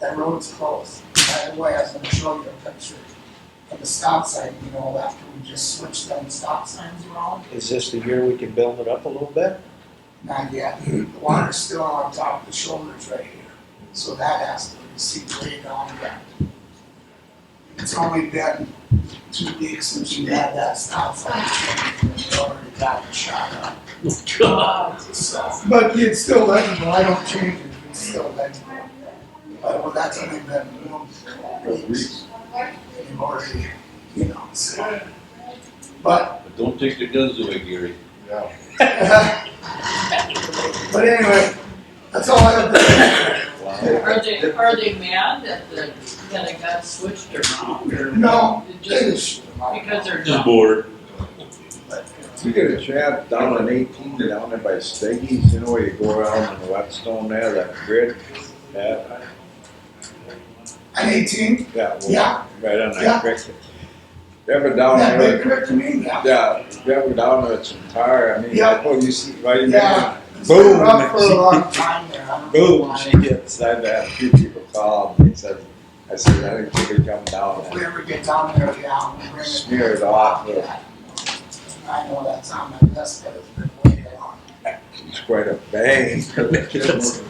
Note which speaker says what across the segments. Speaker 1: that road's closed. By the way, I was gonna show you a picture of the stop sign, you know, after we just switched them stop signs around.
Speaker 2: Is this the year we can build it up a little bit?
Speaker 1: Not yet, the water's still on top of the shoulders right here, so that has to be seeped way down yet. It's only been two weeks since you had that stop sign, and you already got it shot up. But it's still legible, I don't change it, it's still legible. But well, that's only been one weeks. And already, you know, so. But,
Speaker 3: But don't take the guns away, Gary.
Speaker 4: Yeah.
Speaker 1: but anyway, that's all I have to say.
Speaker 5: Are they, are they mad that the, that it got switched around or?
Speaker 1: No,
Speaker 5: It just-
Speaker 1: Just-
Speaker 5: Because they're
Speaker 3: Just
Speaker 5: dumb.
Speaker 3: bored.
Speaker 4: You get a chat down on eighteen, down there by Steggy's, you know, where you go around and Whetstone there, that grid, that,
Speaker 1: I'm eighteen,
Speaker 4: that one,
Speaker 1: yeah,
Speaker 4: right on
Speaker 1: Yeah.
Speaker 4: that creek. Ever down
Speaker 1: that big
Speaker 4: there,
Speaker 1: correct to me, yeah.
Speaker 4: yeah, ever down there, it's entire, I mean,
Speaker 1: Yeah.
Speaker 4: that's what you see right in there.
Speaker 1: Yeah, it's been
Speaker 4: Boom.
Speaker 1: rough for a long time there. I don't know
Speaker 4: Boom,
Speaker 1: why.
Speaker 4: she gets, I've had a few people call, and they said, I said, I think she could come down
Speaker 1: If
Speaker 4: there.
Speaker 1: we ever get down there, yeah, we'll bring it.
Speaker 4: Smear it off, yeah.
Speaker 1: I know that's on my list, but it's been way too long.
Speaker 4: It's quite a bang.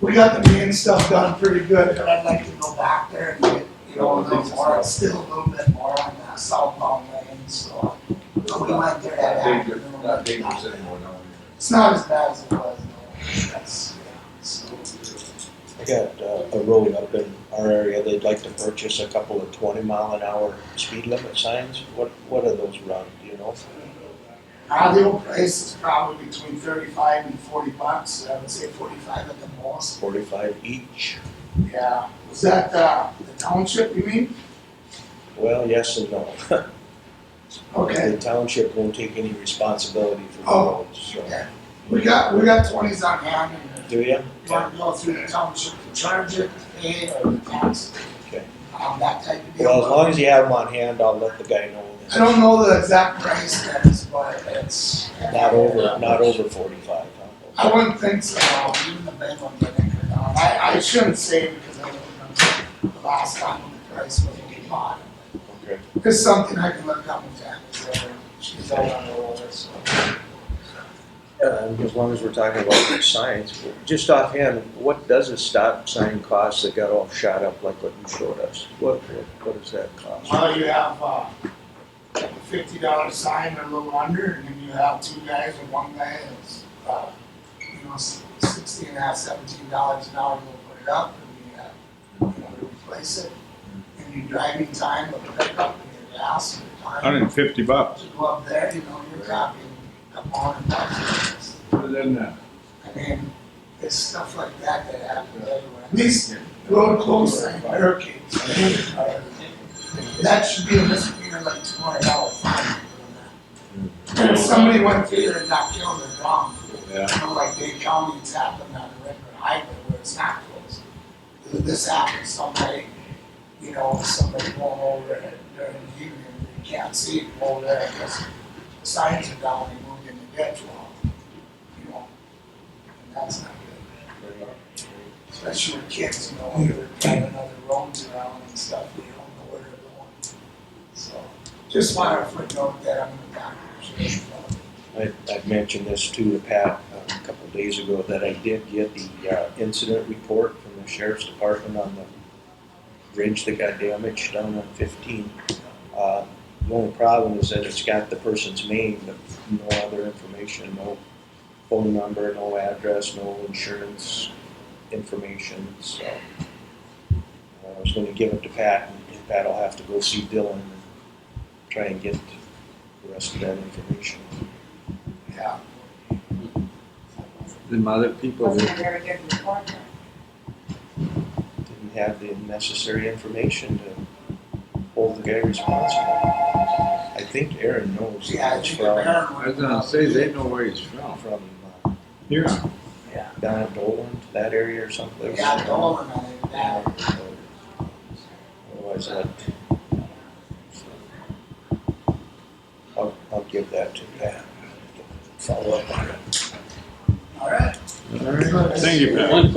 Speaker 1: We got the main stuff done pretty good, but I'd like to go back there and get, you know, a little more, still a little bit more on that southbound lane, so. But we went there that afternoon.
Speaker 4: anymore now.
Speaker 1: It's not as bad as it was, no, that's, yeah, so.
Speaker 2: I got uh, a road up in our area, they'd like to purchase a couple of twenty mile an hour speed limit signs. What, what are those run, do you know?
Speaker 1: Ideal price is probably between thirty-five and forty bucks, I would say forty-five at the most,
Speaker 2: Forty-five each?
Speaker 1: yeah. Was that, uh, the township, you mean?
Speaker 2: Well, yes and no.
Speaker 1: Okay.
Speaker 2: The township won't take any responsibility for the
Speaker 1: Oh.
Speaker 2: roads, so.
Speaker 1: We got, we got twenties on hand, and
Speaker 2: Do you?
Speaker 1: if you wanna go through the township to charge it, pay it, or the tax.
Speaker 2: Okay.
Speaker 1: Um, that type of deal.
Speaker 2: Well, as long as you have them on hand, I'll let the guy know.
Speaker 1: I don't know the exact price that is, but it's.
Speaker 2: Not over, not over forty-five, huh?
Speaker 1: I wouldn't think so, even the big ones, I think, are down. I, I shouldn't say because I don't remember the last time when the price was really high.
Speaker 2: Okay.
Speaker 1: It's something I can look up and down, so she's all on the roller, so.
Speaker 2: Um, as long as we're talking about signs, just offhand, what does a stop sign cost that got all shot up like what you showed us? What, what, what does that cost?
Speaker 1: Well, you have, uh, like a fifty dollar sign or a little under, and then you have two guys or one guy that's, uh, you know, s- sixteen and a half, seventeen dollars an hour, they'll put it up, and you have, you know, to replace it. And your driving time, the pickup, and your gas, and your time.
Speaker 6: Hundred and fifty bucks.
Speaker 1: to go up there, you know, you're talking a hundred bucks. I mean, it's stuff like that that happens everywhere. These road closed sign barricades. uh, That should be a misdemeanor like two hundred dollar fine. And if somebody went through there and not killed their wrong,
Speaker 4: Yeah.
Speaker 1: you know, like Dade County, it's happened on the regular highway where it's not closed. This happened, somebody, you know, somebody going over it during the evening, you can't see it over there because the signs are down, they moved in the ditch wall. You know, and that's not good, especially with kids, you know, when they're driving other roads around and stuff, they don't know where they're going. So, just wanted to footnote that I'm gonna document.
Speaker 2: I, I've mentioned this too to Pat uh, a couple of days ago, that I did get the, uh, incident report from the sheriff's department on the bridge that got damaged down on fifteen. Uh, the only problem is that it's got the person's name, but no other information, no phone number, no address, no insurance information, so. uh, I was gonna give it to Pat, and Pat will have to go see Dylan and try and get the rest of that information.
Speaker 1: Yeah.
Speaker 4: Them other people,
Speaker 7: Wasn't a very good report.
Speaker 2: didn't have the necessary information to hold the guy responsible. I think Aaron knows
Speaker 1: Yeah, I
Speaker 2: it's
Speaker 1: think
Speaker 2: from,
Speaker 1: Aaron
Speaker 4: I was
Speaker 1: would-
Speaker 4: gonna say, they know where he's from.
Speaker 2: from uh,
Speaker 6: Here,
Speaker 2: down in Dolan, that area or someplace.
Speaker 1: Yeah, Dolan, I think,
Speaker 2: Yeah,
Speaker 1: that,
Speaker 2: so, Otherwise, that. I'll, I'll give that to Pat. Follow up on it.
Speaker 1: all right.
Speaker 4: All right.
Speaker 6: thank you, Pat.